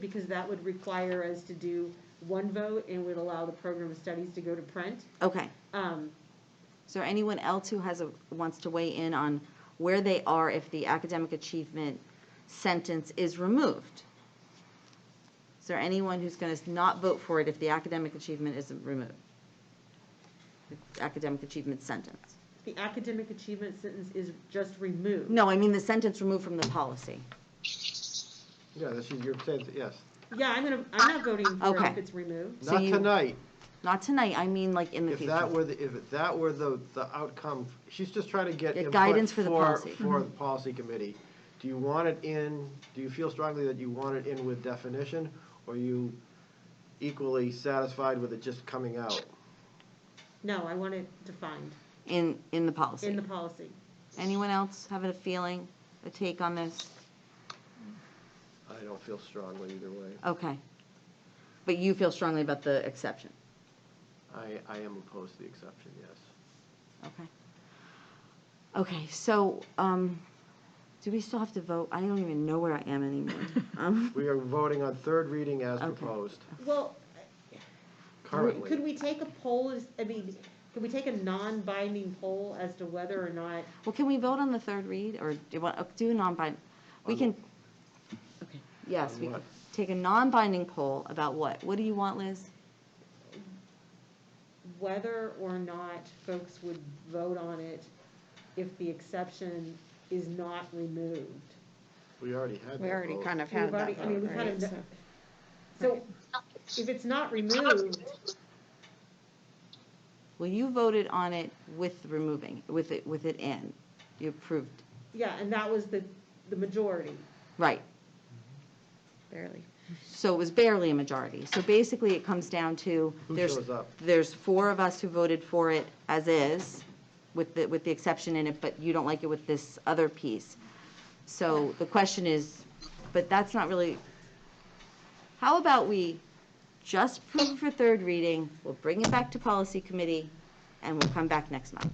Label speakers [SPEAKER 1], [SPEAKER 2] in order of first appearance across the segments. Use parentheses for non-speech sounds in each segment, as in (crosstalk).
[SPEAKER 1] because that would require us to do one vote and would allow the program of studies to go to print.
[SPEAKER 2] Okay.
[SPEAKER 1] Um,
[SPEAKER 2] Is there anyone else who has, a wants to weigh in on where they are if the academic achievement sentence is removed? Is there anyone who's going to not vote for it if the academic achievement isn't removed? The Academic achievement sentence?
[SPEAKER 1] the academic achievement sentence is just removed.
[SPEAKER 2] No, I mean the sentence removed from the policy.
[SPEAKER 3] Yeah, this is, you're saying, yes,
[SPEAKER 1] Yeah, I'm gonna, I'm not voting for it if
[SPEAKER 2] Okay.
[SPEAKER 1] it's removed.
[SPEAKER 2] So
[SPEAKER 3] not
[SPEAKER 2] you-
[SPEAKER 3] tonight,
[SPEAKER 2] Not tonight, I mean like in the
[SPEAKER 3] if that
[SPEAKER 2] future.
[SPEAKER 3] were, the if that were the, the outcome, she's just trying to get
[SPEAKER 2] Get
[SPEAKER 3] input
[SPEAKER 2] guidance for the policy. Mm-hmm.
[SPEAKER 3] For the policy committee, do you want it in, do you feel strongly that you want it in with definition, or are you equally satisfied with it just coming out?
[SPEAKER 1] No, I want it defined
[SPEAKER 2] In, in the
[SPEAKER 1] in
[SPEAKER 2] policy.
[SPEAKER 1] the policy.
[SPEAKER 2] Anyone else having a feeling, a take on this?
[SPEAKER 3] I don't feel strongly either way,
[SPEAKER 2] Okay. But you feel strongly about the exception?
[SPEAKER 3] I, I am opposed to the exception, yes.
[SPEAKER 2] Okay. Okay, so, um, do we still have to vote? I don't even know where I am
[SPEAKER 3] (laughs)
[SPEAKER 2] anymore. Um,
[SPEAKER 3] We are voting on third reading as
[SPEAKER 2] Okay.
[SPEAKER 3] proposed
[SPEAKER 1] Well,
[SPEAKER 3] currently.
[SPEAKER 1] could we take a poll, as- I mean, could we take a non-binding poll as to whether or not
[SPEAKER 2] Well, can we vote on the third read, or do you want, oh, do a non-binding? We
[SPEAKER 3] On
[SPEAKER 2] can, okay, yes,
[SPEAKER 3] On
[SPEAKER 2] we
[SPEAKER 3] what?
[SPEAKER 2] could take a non-binding poll about what? What do you want, Liz?
[SPEAKER 1] whether or not folks would vote on it if the exception is not removed.
[SPEAKER 3] We already had that
[SPEAKER 4] We already
[SPEAKER 3] vote.
[SPEAKER 4] kind of
[SPEAKER 1] We've
[SPEAKER 4] had
[SPEAKER 1] already-
[SPEAKER 4] that
[SPEAKER 1] I mean,
[SPEAKER 4] vote,
[SPEAKER 1] we kind
[SPEAKER 4] right?
[SPEAKER 1] of
[SPEAKER 4] So
[SPEAKER 1] kn- So if it's not removed,
[SPEAKER 2] Well, you voted on it with removing, with it, with it in. You approved,
[SPEAKER 1] yeah, and that was the, the majority.
[SPEAKER 2] right.
[SPEAKER 4] Barely.
[SPEAKER 2] So it was barely a majority. So basically, it comes down to,
[SPEAKER 3] Who
[SPEAKER 2] there's,
[SPEAKER 3] shows up?
[SPEAKER 2] there's four of us who voted for it as is, with the, with the exception in it, but you don't like it with this other piece. So the question is, but that's not really, how about we just prove it for third reading, we'll bring it back to policy committee, and we'll come back next month.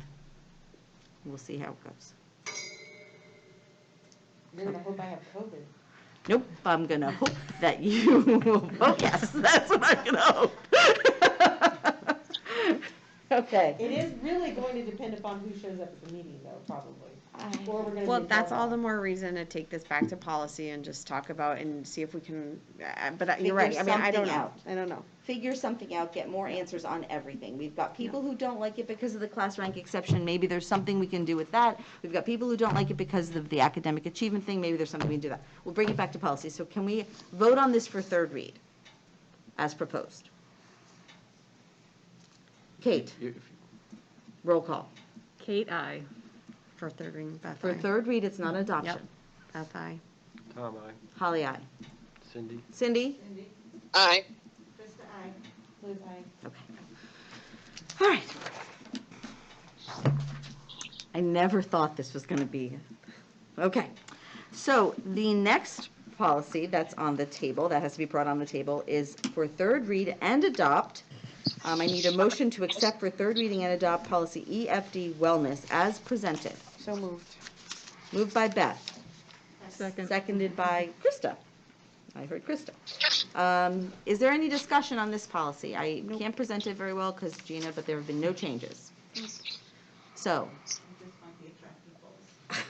[SPEAKER 2] We'll see how it goes. Nope, I'm gonna hope that you (laughs) will vote yes. That's what I'm gonna hope. (laughs) Okay.
[SPEAKER 1] It is really going to depend upon who shows up at the meeting though, probably. Or we're gonna
[SPEAKER 4] Well,
[SPEAKER 1] be
[SPEAKER 4] that's all the
[SPEAKER 1] involved.
[SPEAKER 4] more reason to take this back to policy and just talk about and see if we can, uh, but I- you're
[SPEAKER 2] Figure
[SPEAKER 4] right, I mean, I don't
[SPEAKER 2] something
[SPEAKER 4] know,
[SPEAKER 2] out.
[SPEAKER 4] I don't know.
[SPEAKER 2] Figure something out, get more answers on everything. We've got people who don't like it because of the class rank exception. Maybe there's something we can do with that. We've got people who don't like it because of the academic achievement thing. Maybe there's something we can do that. We'll bring it back to policy. So can we vote on this for third read as proposed? Kate,
[SPEAKER 3] You- if you-
[SPEAKER 2] roll call.
[SPEAKER 4] Kate, I For third reading, Beth,
[SPEAKER 2] For
[SPEAKER 4] aye.
[SPEAKER 2] third read, it's not adoption.
[SPEAKER 4] Beth, aye.
[SPEAKER 3] Tom, I,
[SPEAKER 2] Holly, aye.
[SPEAKER 3] Cindy?
[SPEAKER 2] Cindy?
[SPEAKER 5] Aye.
[SPEAKER 1] Krista, aye. Liz, aye.
[SPEAKER 2] Okay. All right. I never thought this was going to be, okay. So the next policy that's on the table, that has to be brought on the table, is for third read and adopt. Um, I need a motion to accept for third reading and adopt policy EFD wellness as presented.
[SPEAKER 4] So moved.
[SPEAKER 2] Moved by Beth. Seconded by Krista. I heard Krista. Um, Is there any discussion on this policy? I can't present it very well because Gina, but there have been no changes. So.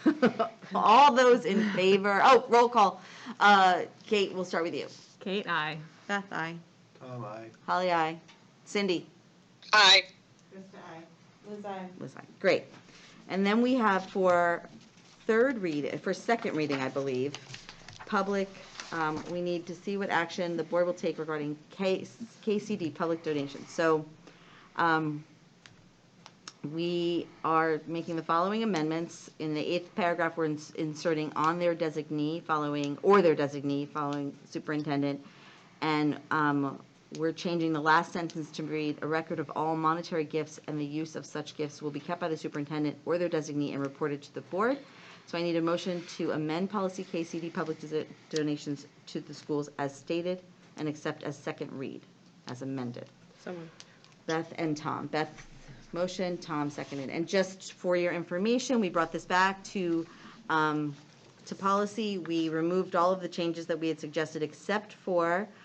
[SPEAKER 2] (laughs) All those in favor, oh, roll call. Uh, Kate, we'll start with you.
[SPEAKER 4] Kate, I Beth, aye.
[SPEAKER 3] Tom, I.
[SPEAKER 2] Holly, aye. Cindy?
[SPEAKER 5] Aye.
[SPEAKER 1] Krista, aye. Liz, aye.
[SPEAKER 2] was I, great. And then we have for third read, for second reading, I believe, public, um, we need to see what action the board will take regarding case, KCD, public donations. So, um, we are making the following amendments. In the eighth paragraph, we're ins- inserting on their designee following, or their designee following superintendent. And um, we're changing the last sentence to read, "A record of all monetary gifts and the use of such gifts will be kept by the superintendent or their designee and reported to the board." So I need a motion to amend policy KCD, public desi- donations to the schools as stated and accept as second read, as amended.
[SPEAKER 4] Someone.
[SPEAKER 2] Beth and Tom. Beth motion, Tom seconded. And just for your information, we brought this back to um, to policy, we removed all of the changes that we had suggested except for